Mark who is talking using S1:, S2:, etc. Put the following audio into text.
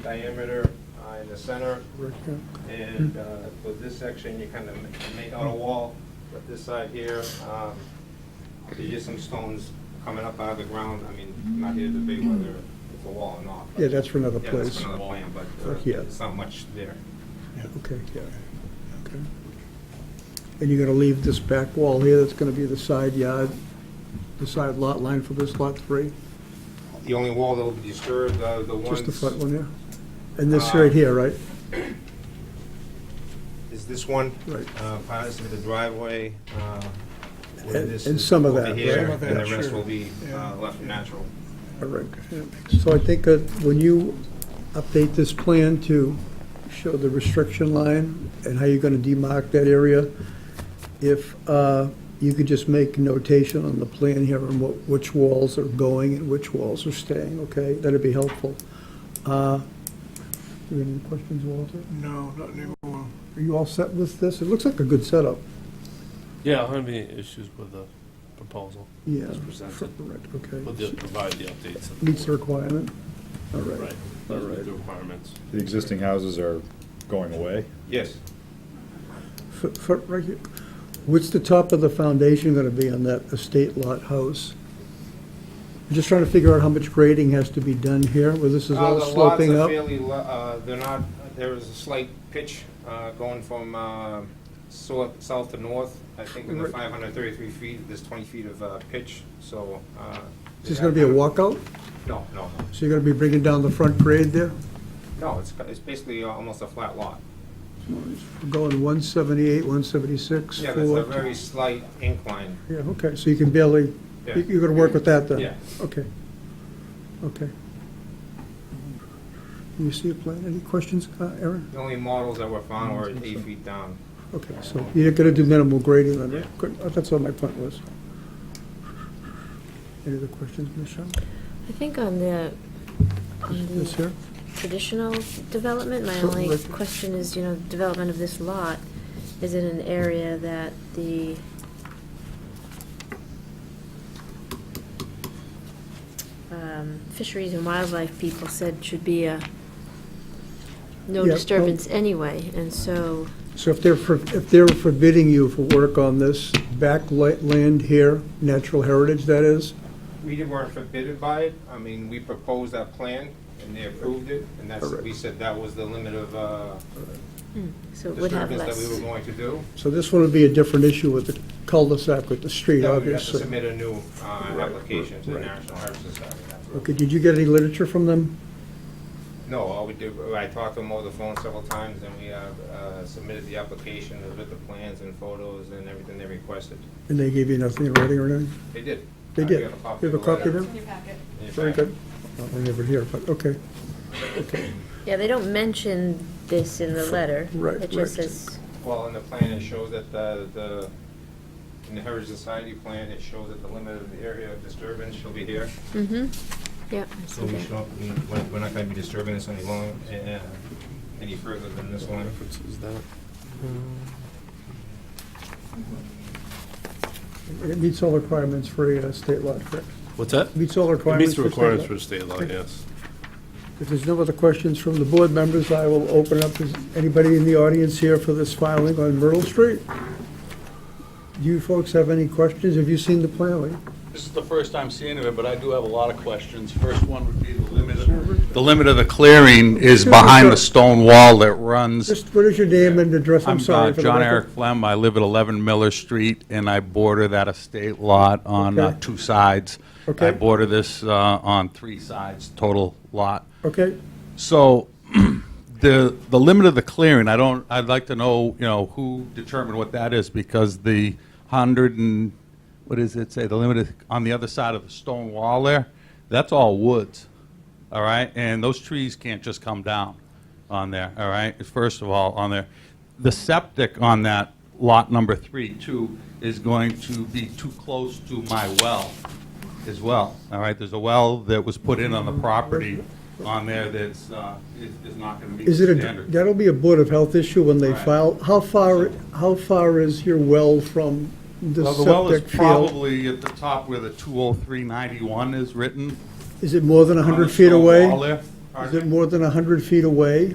S1: diameter uh, in the center. And uh, for this section, you kind of make out a wall, but this side here, um, there's just some stones coming up out of the ground. I mean, I'm not here to debate whether it's a wall or not. but-
S2: Yeah, that's for another
S1: Yeah, that's
S2: place.
S1: another plan, but uh,
S2: Yeah.
S1: it's not much there.
S2: Okay, yeah, okay. And you're gonna leave this back wall here, that's gonna be the side yard, the side lot line for this lot three?
S1: The only wall that'll be disturbed, uh, the ones...
S2: Just the front one, yeah? And this right here, right?
S1: Is this one?
S2: Right.
S1: Uh, Part of the driveway. uh, where
S2: And-
S1: this
S2: and
S1: is
S2: some of
S1: over
S2: that,
S1: here,
S2: right? Some
S1: And
S2: of
S1: the
S2: that,
S1: rest
S2: sure.
S1: will be uh,
S2: Yeah.
S1: left natural.
S2: All right. So I think that when you update this plan to show the restriction line and how you're gonna demarc that area, if uh, you could just make notation on the plan here on what, which walls are going and which walls are staying, okay? That'd be helpful. Uh, Do you have any questions, Walter?
S3: No, not anymore.
S2: Are you all set with this? It looks like a good setup.
S4: Yeah, I don't have any issues with the proposal,
S2: Yeah.
S4: It's presented.
S2: Correct, okay.
S4: but they'll provide the updates. that
S2: Meets the
S4: board-
S2: requirement? All right.
S4: Right, those are the requirements.
S5: The existing houses are going away.
S1: Yes.
S2: For- for- right here. What's the top of the foundation going to be on that estate lot house? I'm just trying to figure out how much grading has to be done here, where this is
S1: Uh,
S2: all sloping up.
S1: The lots are fairly, lo- uh, they're not, there is a slight pitch uh, going from uh, so- south to north. I think in the
S2: Right.
S1: 533 feet, there's 20 feet of uh, pitch, so. uh,
S2: Is this going to be a walkout?
S1: No, no, no.
S2: So you're going to be bringing down the front grade there?
S1: No, it's it's basically almost a flat lot.
S2: We're Going 178, 176,
S1: Yeah, there's a
S2: 4...
S1: very slight incline.
S2: Yeah, okay, so you can barely,
S1: Yeah.
S2: you're going to work with that then?
S1: Yeah.
S2: Okay, okay. Can you see a plan? Any questions, uh, Aaron?
S1: The only models that were found were eight
S2: Mm-hmm.
S1: feet down.
S2: Okay, so you're gonna do minimal grading then,
S1: Yeah.
S2: right? Good, uh, that's what my point was. Any other questions, Michelle?
S6: I think on the, on
S2: This
S6: the
S2: here?
S6: traditional development, my
S2: Sure,
S6: only
S2: Rick.
S6: question is, you know, development of this lot is in an area that the, um, fisheries and wildlife people said should be a no
S2: Yeah, well-
S6: disturbance anyway, and so,
S2: So if they're, for- if they're forbidding you for work on this back li- land here, natural heritage that is,
S1: We weren't forbidden by it. I mean, we proposed that plan, and they approved it, and that's, we said that was the limit of uh,
S6: so it would have
S1: disturbance that we were going
S6: less.
S1: to do.
S2: so this one would be a different issue with the cul-de-sac with the street,
S1: Yeah, we have to
S2: obviously.
S1: submit a new uh, application to the National Heart Society.
S2: Okay, did you get any literature from them?
S1: No, all we did, I talked to them over the phone several times, and we uh, uh, submitted the application with the plans and photos and everything they requested.
S2: And they gave you nothing in writing or anything?
S1: They did.
S2: They
S1: Uh,
S2: did.
S1: we have a copy
S2: You have a
S1: of the
S2: copy
S1: letter.
S2: there?
S7: in your packet.
S1: In your
S2: Very
S1: packet.
S2: good. Well, We're never here, but, okay.
S6: Yeah, they don't mention this in the letter.
S2: Right,
S6: It just
S2: right.
S6: says,
S1: Well, in the plan, it shows that the, the, in the Heritage Society plan, it shows that the limit of the area of disturbance shall be here.
S6: mm-hmm, yep, I
S1: So
S6: see
S1: we
S6: that.
S1: shall, we- we're we're not gonna be disturbing this any long, uh, any further than this line.
S4: Is that?
S2: It meets all requirements for a uh, state lot, correct?
S4: What's that?
S2: Meets all
S4: It
S2: requirements
S4: meets
S2: for
S4: the
S2: state
S4: requirements
S2: law.
S4: for state law, yes.
S2: If there's no other questions from the board members, I will open up, is anybody in the audience here for this filing on Myrtle Street? Do you folks have any questions? Have you seen the plan? Lee?
S8: This is the first time seeing of it, but I do have a lot of questions. First one would be the limit of... The limit of the clearing is behind the stone wall that runs...
S2: Just, what is your name and address? I'm
S8: uh,
S2: sorry. for the
S8: John
S2: record.
S8: Eric Flem, I live at 11 Miller Street, and I border that estate lot on uh,
S2: Okay.
S8: two sides.
S2: Okay.
S8: I border this uh, on three sides, total lot.
S2: Okay,
S8: So, the, the limit of the clearing, I don't, I'd like to know, you know, who determined what that is, because the hundred and, what does it say, the limit is on the other side of the stone wall there, that's all woods, all right? And those trees can't just come down on there, all right? First of all, on there. The septic on that lot number three, too, is going to be too close to my well as well, all right? There's a well that was put in on the property on there that's, uh, is is not going to meet the
S2: is it,
S8: standard.
S2: a? that'll be a Board of Health issue when they
S8: Right.
S2: file. How far, how far is your well from the
S8: Well, the well is
S2: septic field?
S8: probably at the top where the 20391 is written.
S2: Is it more than
S8: on the
S2: 100 feet
S8: stone
S2: away?
S8: wall there.
S2: Is it more than 100 feet away?